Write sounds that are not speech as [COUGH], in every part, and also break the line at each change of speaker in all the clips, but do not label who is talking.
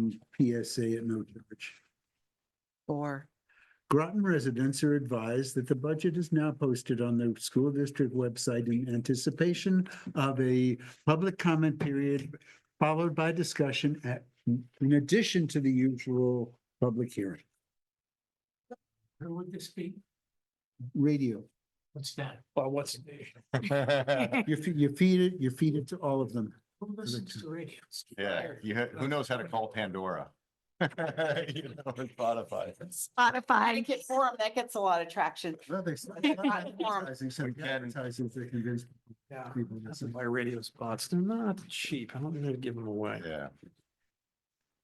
from PSA at no charge.
Or
Groton residents are advised that the budget is now posted on the school district website in anticipation of a public comment period followed by discussion at, in addition to the usual public hearing.
Who would this be?
Radio,
What's that? Or what's?
[LAUGHS]
you feed, you feed it, you feed it to all of them.
Who listens to radios?
Yeah, you, ha- who knows how to call Pandora? [LAUGHS] You know, and Spotify.
I
Spotify.
get forum, that gets a lot of traction.
Well, they- Advertising, [LAUGHS] so
Again.
advertising to convince
Yeah.
people to
That's
listen.
my radio spots. They're not cheap. I'm not gonna give them [LAUGHS] away.
Yeah,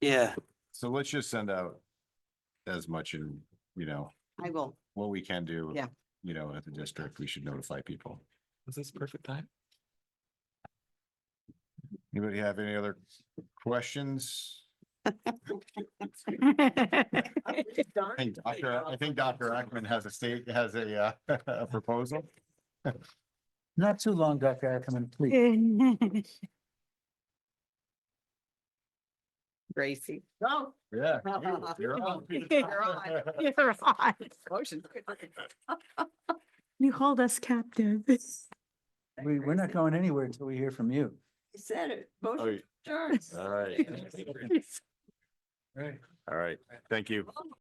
Yeah.
so let's just send out as much and, you know,
I will.
what we can do.
Yeah.
You know, at the district, we should notify people.
Is this perfect time?
Anybody have any other questions? I think Dr. I think Dr. Ackman has a state, has a, uh, [LAUGHS] a proposal.
Not too long, Dr. Ackerman, please.
Gracie.
Yeah.
you-
You're on. [LAUGHS]
You're on.
Oh, [LAUGHS] You're on.
Motion.
You hold us captive.
We, we're not going anywhere until we hear from you.
Said it.
Oh,
Motion.
All right, all right, thank you.